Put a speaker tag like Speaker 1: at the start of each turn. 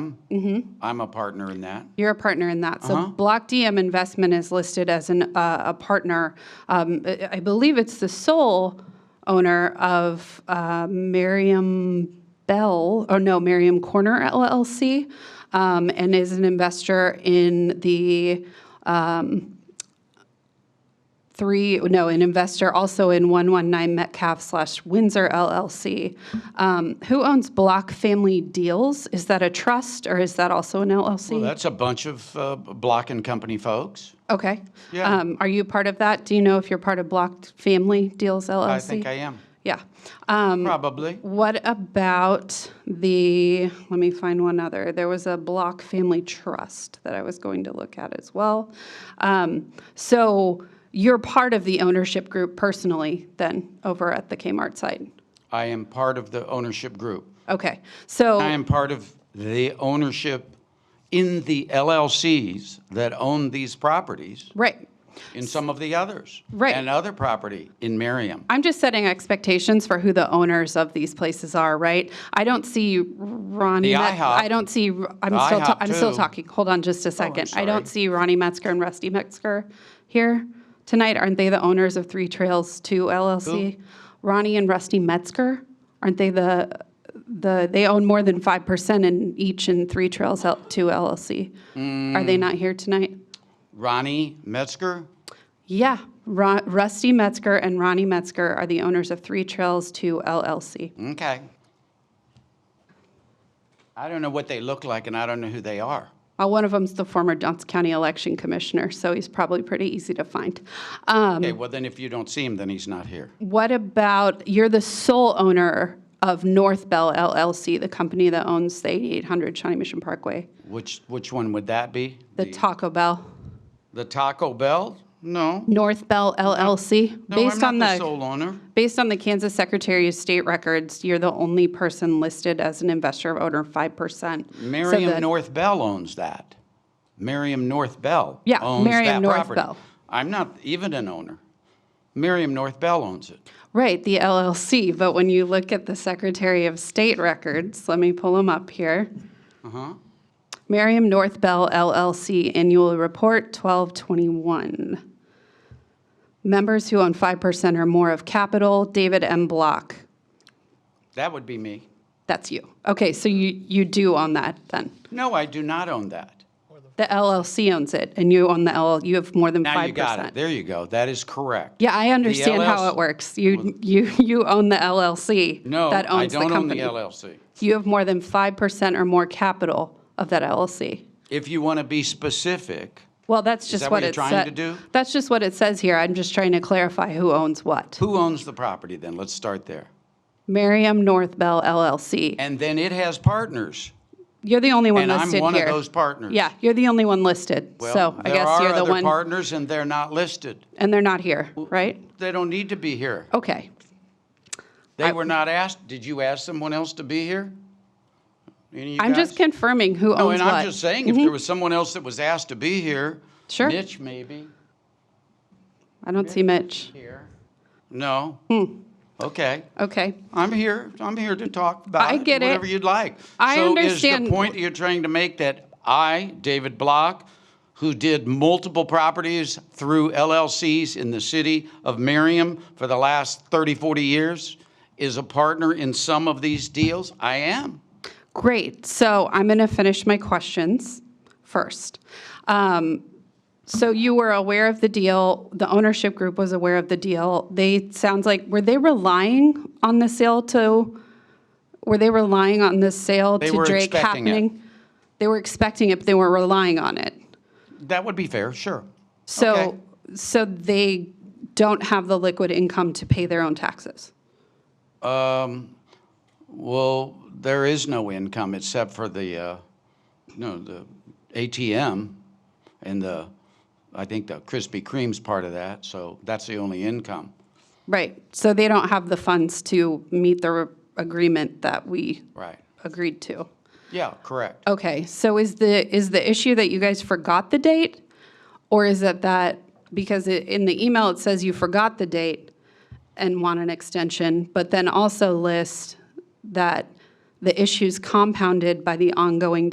Speaker 1: Mm-hmm.
Speaker 2: I'm a partner in that.
Speaker 1: You're a partner in that. So Block DM Investment is listed as an, uh, a partner. Um, I I believe it's the sole owner of uh, Merriam Bell, or no, Merriam Corner LLC, um, and is an investor in the um, three, no, an investor also in 119 Metcalf slash Windsor LLC. Um, Who owns Block Family Deals? Is that a trust, or is that also an LLC?
Speaker 2: Well, that's a bunch of uh, Block and Company folks.
Speaker 1: Okay.
Speaker 2: Yeah.
Speaker 1: Um, Are you part of that? Do you know if you're part of Blocked Family Deals LLC?
Speaker 2: I think I am,
Speaker 1: Yeah. Oh, Um,
Speaker 2: probably.
Speaker 1: What about the, let me find one other. There was a Block Family Trust that I was going to look at as well. Um, So you're part of the ownership group personally then over at the Kmart site?
Speaker 2: I am part of the ownership group.
Speaker 1: Okay. So.
Speaker 2: I am part of the ownership in the LLCs that own these properties
Speaker 1: Right.
Speaker 2: in some of the others.
Speaker 1: Right.
Speaker 2: And other property in Merriam.
Speaker 1: I'm just setting expectations for who the owners of these places are, right? I don't see Ronnie.
Speaker 2: The
Speaker 1: Met-
Speaker 2: IHOP.
Speaker 1: I don't see. I'm
Speaker 2: The
Speaker 1: still. ta-
Speaker 2: IHOP
Speaker 1: I'm still
Speaker 2: too.
Speaker 1: talking. Hold on, just a second. I
Speaker 2: sorry.
Speaker 1: don't see Ronnie Metzger and Rusty Metzger here tonight. Aren't they the owners of Three Trails Two LLC? Ronnie and Rusty Metzger. Aren't they the the? They own more than five percent in each in Three Trails L- Two LLC. Are
Speaker 2: Mm.
Speaker 1: they not here tonight?
Speaker 2: Ronnie Metzger,
Speaker 1: Yeah, Ro- Rusty Metzger and Ronnie Metzger are the owners of Three Trails Two LLC.
Speaker 2: okay. I don't know what they look like and I don't know who they are.
Speaker 1: Well, one of them's the former Johnson County Election Commissioner, so he's probably pretty easy to find. Um,
Speaker 2: Okay, well then if you don't see him, then he's not here.
Speaker 1: What about, you're the sole owner of North Bell LLC, the company that owns the 8800 Shawnee Mission Parkway,
Speaker 2: Which, which one would that be?
Speaker 1: the Taco Bell,
Speaker 2: The Taco Bell? No.
Speaker 1: North Bell LLC?
Speaker 2: No,
Speaker 1: Based
Speaker 2: I'm
Speaker 1: on
Speaker 2: not the sole owner.
Speaker 1: Based on the Kansas Secretary of State records, you're the only person listed as an investor of owner 5%. So
Speaker 2: Merriam
Speaker 1: the-
Speaker 2: North Bell owns that. Merriam North Bell
Speaker 1: Yeah,
Speaker 2: owns
Speaker 1: Merriam
Speaker 2: that
Speaker 1: North
Speaker 2: property.
Speaker 1: Bell.
Speaker 2: I'm not even an owner. Merriam North Bell owns it.
Speaker 1: Right, the LLC, but when you look at the Secretary of State records, let me pull them up here.
Speaker 2: Uh-huh.
Speaker 1: Merriam North Bell LLC Annual Report 1221. Members who own 5% or more of capital, David M. Block.
Speaker 2: That would be me.
Speaker 1: That's you. Okay, so you, you do own that then.
Speaker 2: No, I do not own that.
Speaker 1: The LLC owns it, and you own the LL, you have more than 5%.
Speaker 2: Now you got it. There you go. That is correct.
Speaker 1: Yeah, I understand how
Speaker 2: LLC
Speaker 1: it works. You, you, you own the LLC
Speaker 2: No,
Speaker 1: that
Speaker 2: I
Speaker 1: owns the
Speaker 2: don't own the
Speaker 1: company.
Speaker 2: LLC.
Speaker 1: you have more than 5% or more capital of that LLC.
Speaker 2: If you want to be specific,
Speaker 1: Well, that's just
Speaker 2: that what
Speaker 1: what
Speaker 2: you're
Speaker 1: it
Speaker 2: trying
Speaker 1: sa-
Speaker 2: to do?
Speaker 1: That's just what it says here. I'm just trying to clarify who owns what.
Speaker 2: who owns the property then? Let's start there.
Speaker 1: Merriam North Bell LLC.
Speaker 2: And then it has partners.
Speaker 1: You're the only one
Speaker 2: And I'm
Speaker 1: listed here.
Speaker 2: one of those partners.
Speaker 1: Yeah, you're the only one listed.
Speaker 2: Well,
Speaker 1: So I guess
Speaker 2: There
Speaker 1: you're
Speaker 2: are
Speaker 1: the
Speaker 2: other
Speaker 1: one,
Speaker 2: partners and they're not listed.
Speaker 1: and they're not here, right?
Speaker 2: They don't need to be here.
Speaker 1: Okay.
Speaker 2: They were not asked, did you ask someone else to be here? Any of you
Speaker 1: I'm just
Speaker 2: guys?
Speaker 1: confirming who
Speaker 2: No,
Speaker 1: owns
Speaker 2: and I'm just
Speaker 1: what. Mm-hmm.
Speaker 2: saying, if there was someone else that was asked to be here.
Speaker 1: Sure.
Speaker 2: Mitch maybe,
Speaker 1: I don't see Mitch.
Speaker 2: here. No?
Speaker 1: Hmm.
Speaker 2: Okay,
Speaker 1: Okay.
Speaker 2: I'm here, I'm here to talk about
Speaker 1: I
Speaker 2: it,
Speaker 1: get it.
Speaker 2: whatever you'd like.
Speaker 1: I
Speaker 2: So is
Speaker 1: understand-
Speaker 2: the point you're trying to make that I, David Block, who did multiple properties through LLCs in the city of Merriam for the last 30, 40 years, is a partner in some of these deals? I am.
Speaker 1: Great. So I'm going to finish my questions first. Um, So you were aware of the deal, the ownership group was aware of the deal. They, sounds like, were they relying on the sale to, were they relying on the sale
Speaker 2: They
Speaker 1: to
Speaker 2: were
Speaker 1: Drake
Speaker 2: expecting it.
Speaker 1: happening? They were expecting it, but they were relying on it.
Speaker 2: That would be fair, sure. Okay.
Speaker 1: So, so they don't have the liquid income to pay their own taxes.
Speaker 2: Um, well, there is no income except for the, uh, no, the ATM and the, I think the Krispy Kreme's part of that, so that's the only income.
Speaker 1: Right. So they don't have the funds to meet the re- agreement that we
Speaker 2: Right.
Speaker 1: agreed to.
Speaker 2: Yeah, correct.
Speaker 1: Okay, so is the, is the issue that you guys forgot the date? Or is it that, because it- in the email, it says you forgot the date and want an extension, but then also list that the issue's compounded by the ongoing